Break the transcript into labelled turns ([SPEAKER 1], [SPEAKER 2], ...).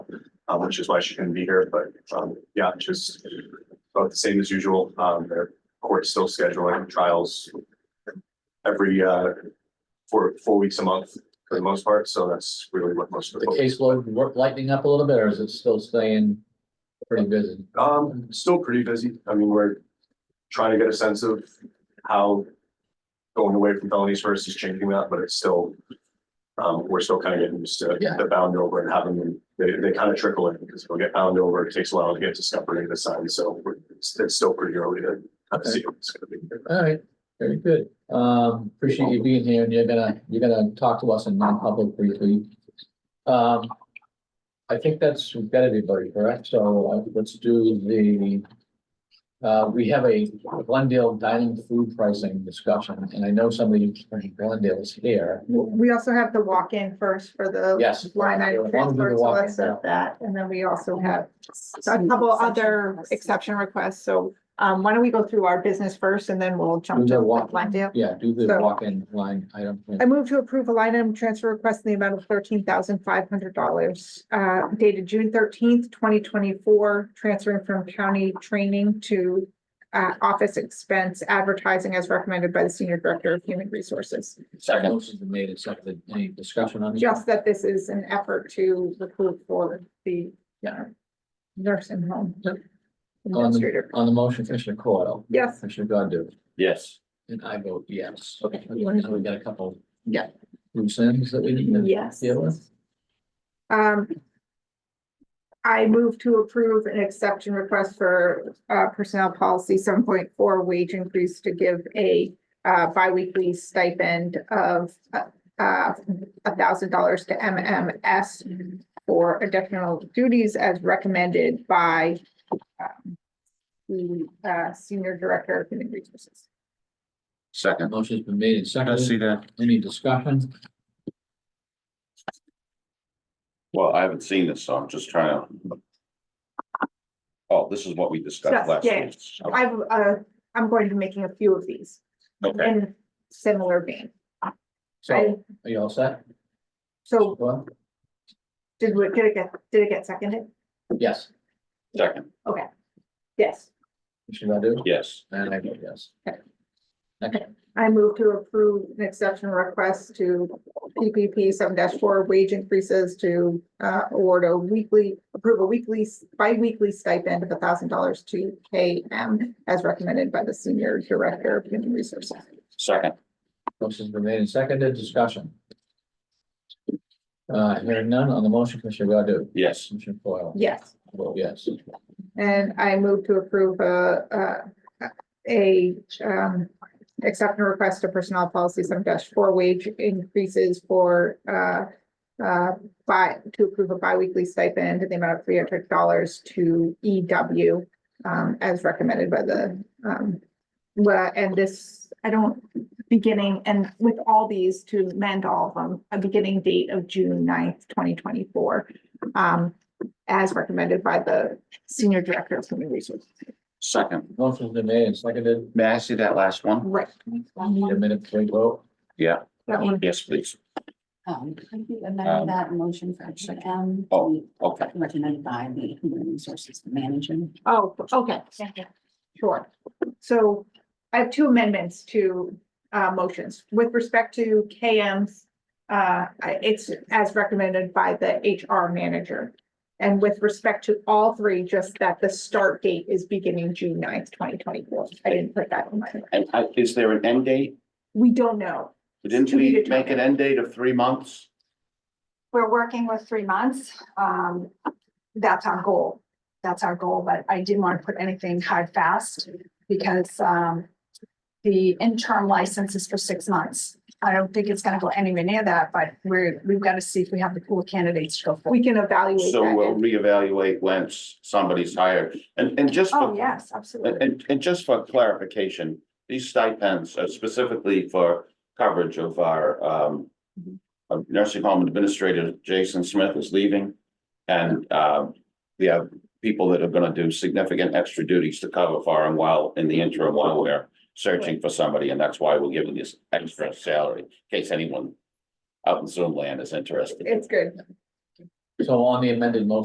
[SPEAKER 1] uh, which is why she couldn't be here, but, um, yeah, just about the same as usual. Um, their court's still scheduling trials every, uh, four, four weeks a month for the most part, so that's really what most of
[SPEAKER 2] The
[SPEAKER 1] the. focus-
[SPEAKER 2] caseload work lightening up a little bit, or is it still staying pretty busy?
[SPEAKER 1] Um, still pretty busy. I mean, we're trying to get a sense of how going away from felonies first is changing that, but it's still, um, we're still kind of getting used to
[SPEAKER 2] Yeah.
[SPEAKER 1] the bound over and having them, they, they kind of trickle in because we'll get bound over. It takes a while to get discovery of the sign, so we're- it's, it's still pretty early to kind of see what's gonna be.
[SPEAKER 2] All right, very good. Um, appreciate you being here and you're gonna, you're gonna talk to us in non-public briefly. Um, I think that's, we've got everybody, correct? So uh, let's do the uh, we have a Glendale dining food pricing discussion, and I know somebody from Glendale is here.
[SPEAKER 3] We also have the walk-in first for the.
[SPEAKER 2] Yes.
[SPEAKER 3] Line
[SPEAKER 2] Yeah, why don't we do
[SPEAKER 3] item
[SPEAKER 2] the
[SPEAKER 3] transfer, so
[SPEAKER 2] walk-in
[SPEAKER 3] let's set
[SPEAKER 2] now?
[SPEAKER 3] that, and then we also have a couple other exception requests, so. Um, why don't we go through our business first and then we'll
[SPEAKER 2] Do
[SPEAKER 3] jump
[SPEAKER 2] the
[SPEAKER 3] to
[SPEAKER 2] walk-in.
[SPEAKER 3] Glendale.
[SPEAKER 2] Yeah, do the
[SPEAKER 3] So-
[SPEAKER 2] walk-in line item.
[SPEAKER 3] I move to approve a line item transfer request in the amount of thirteen thousand five hundred dollars, uh, dated June thirteenth, twenty twenty-four. Transferring from county training to, uh, office expense advertising as recommended by the Senior Director of Human Resources.
[SPEAKER 2] Second. Motion's been made and seconded. Any discussion on this?
[SPEAKER 3] Just that this is an effort to recruit for the uh,
[SPEAKER 2] Yeah.
[SPEAKER 3] nursing home.
[SPEAKER 2] Yep. On the,
[SPEAKER 3] Administrator.
[SPEAKER 2] on the motion, Commissioner Coyle,
[SPEAKER 3] Yes,
[SPEAKER 2] Commissioner Godu,
[SPEAKER 4] Yes.
[SPEAKER 2] and I vote yes. Okay,
[SPEAKER 3] You wanna-
[SPEAKER 2] now we got a couple.
[SPEAKER 3] Yeah.
[SPEAKER 2] Loose ends that we need to
[SPEAKER 3] yes.
[SPEAKER 2] deal with.
[SPEAKER 3] Um. I move to approve an exception request for uh personnel policy seven point four wage increase to give a. Uh, biweekly stipend of uh, uh, a thousand dollars to MMS. For additional duties as recommended by. um, The uh senior director of human resources.
[SPEAKER 4] Second.
[SPEAKER 2] Motion's been made and seconded.
[SPEAKER 4] that.
[SPEAKER 2] Any discussion?
[SPEAKER 4] Well, I haven't seen this, so I'm just trying to. Oh, this is what we discussed
[SPEAKER 3] Yes,
[SPEAKER 4] last
[SPEAKER 3] yeah.
[SPEAKER 4] week.
[SPEAKER 3] I've uh, I'm going to be making a few of these
[SPEAKER 4] Okay,
[SPEAKER 3] in similar vein. I,
[SPEAKER 2] So, are you all set?
[SPEAKER 3] so
[SPEAKER 2] Well,
[SPEAKER 3] Did we, did it get, did it get seconded?
[SPEAKER 2] yes,
[SPEAKER 4] second,
[SPEAKER 3] Yes.
[SPEAKER 2] Commissioner Godu,
[SPEAKER 4] yes.
[SPEAKER 2] and I vote yes.
[SPEAKER 3] Okay.
[SPEAKER 2] Okay,
[SPEAKER 3] I move to approve an exception request to PPP seven four wage increases to uh award a weekly, approve a weekly, bi-weekly stipend of thousand dollars to KM as recommended by the senior director of human resources.
[SPEAKER 4] Second,
[SPEAKER 2] motion's been made and seconded. Discussion. Uh, hearing none on the motion, Commissioner Godu,
[SPEAKER 4] yes.
[SPEAKER 2] Commissioner Coyle,
[SPEAKER 3] Yes,
[SPEAKER 2] I vote yes.
[SPEAKER 3] and I move to approve a uh a um exception request to personnel policy seven four wage increases for uh uh, by, to approve a biweekly stipend in the amount of three hundred dollars to EW um, as recommended by the um, well, and this, I don't, beginning, and with all these to amend all of them, a beginning date of June 9th, twenty twenty-four um, as recommended by the Senior Director of Human Resources.
[SPEAKER 4] Second.
[SPEAKER 2] Motion's been made and seconded.
[SPEAKER 4] May I see that last one?
[SPEAKER 3] Right.
[SPEAKER 2] Need a minute to vote.
[SPEAKER 4] Yeah,
[SPEAKER 3] That one,
[SPEAKER 4] yes, please.
[SPEAKER 5] Um, could you
[SPEAKER 4] Um,
[SPEAKER 5] amend that motion for action M?
[SPEAKER 4] Oh, okay.
[SPEAKER 5] Recommended by the Human Resources Manager.
[SPEAKER 3] oh, okay, Sure. So I have two amendments to uh motions with respect to KM's. Uh, I- it's as recommended by the HR manager. And with respect to all three, just that the start date is beginning June 9th, twenty twenty-four. I didn't put that in my,
[SPEAKER 4] And I, is there an end date?
[SPEAKER 3] we don't know.
[SPEAKER 4] Didn't
[SPEAKER 3] To be
[SPEAKER 4] we
[SPEAKER 3] determined.
[SPEAKER 4] make an end date of three months?
[SPEAKER 6] We're working with three months. Um, that's our goal. That's our goal, but I didn't want to put anything hard fast because, um, the interim license is for six months. I don't think it's gonna go anywhere near that, but we're, we've got to see if we have the pool of candidates to go for.
[SPEAKER 3] We can evaluate
[SPEAKER 4] So we'll
[SPEAKER 3] that.
[SPEAKER 4] reevaluate once somebody's hired. And, and just
[SPEAKER 6] Oh,
[SPEAKER 4] for
[SPEAKER 6] yes,
[SPEAKER 4] And,
[SPEAKER 6] absolutely.
[SPEAKER 4] and, and just for clarification, these stipends are specifically for coverage of our, um, of nursing home administrator Jason Smith is leaving. And, um, we have people that are gonna do significant extra duties to cover for him while, in the interim, while we're searching for somebody, and that's why we're giving this extra salary, in case anyone out in Zoom land is interested.
[SPEAKER 3] It's good.
[SPEAKER 2] So on the amended motion.